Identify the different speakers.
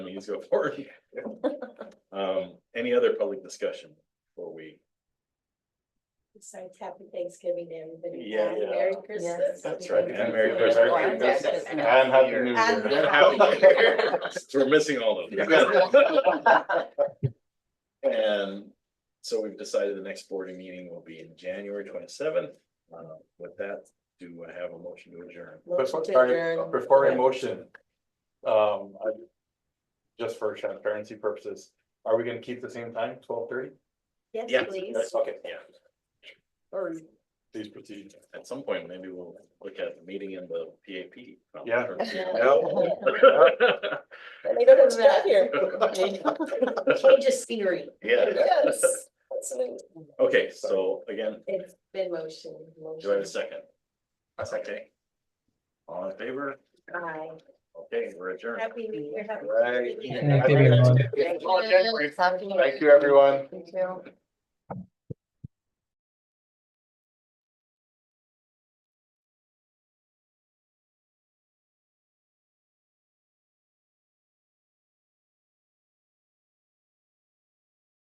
Speaker 1: things go forward. Um, any other public discussion before we?
Speaker 2: Besides, happy Thanksgiving to everybody.
Speaker 1: Yeah, yeah.
Speaker 2: Merry Christmas.
Speaker 1: That's right, and Merry
Speaker 3: Merry
Speaker 1: Christmas.
Speaker 3: Christmas.
Speaker 4: And Happy New
Speaker 2: And-
Speaker 4: Year.
Speaker 1: And Happy New Year. So We're missing all of them. And so we've decided the next boarding meeting will be in January twenty seventh. Uh, with that, do I have a motion to adjourn?
Speaker 4: Before,
Speaker 2: Motion to
Speaker 4: sorry,
Speaker 2: adjourn.
Speaker 4: before
Speaker 2: Yeah.
Speaker 4: a motion. Um, I. Just for transparency purposes, are we gonna keep the same time, twelve thirty?
Speaker 2: Yes,
Speaker 1: Yes.
Speaker 2: please.
Speaker 4: Okay.
Speaker 1: Yeah,
Speaker 4: Sorry. Please proceed.
Speaker 1: at some point, maybe we'll look at the meeting in the PAP.
Speaker 4: Yeah.
Speaker 2: They don't have stuff here. Change of scenery.
Speaker 1: Yeah,
Speaker 2: Yes. absolutely.
Speaker 1: okay, so again,
Speaker 2: It's been motion.
Speaker 1: do I have a
Speaker 2: motion.
Speaker 1: second? A second. All in favor?
Speaker 2: Aye.
Speaker 1: Okay, we're adjourned.
Speaker 2: Happy New Year. happy
Speaker 4: Right.
Speaker 2: Thanksgiving.
Speaker 3: Happy New Year.
Speaker 4: Thank you, everyone.
Speaker 2: Thank you.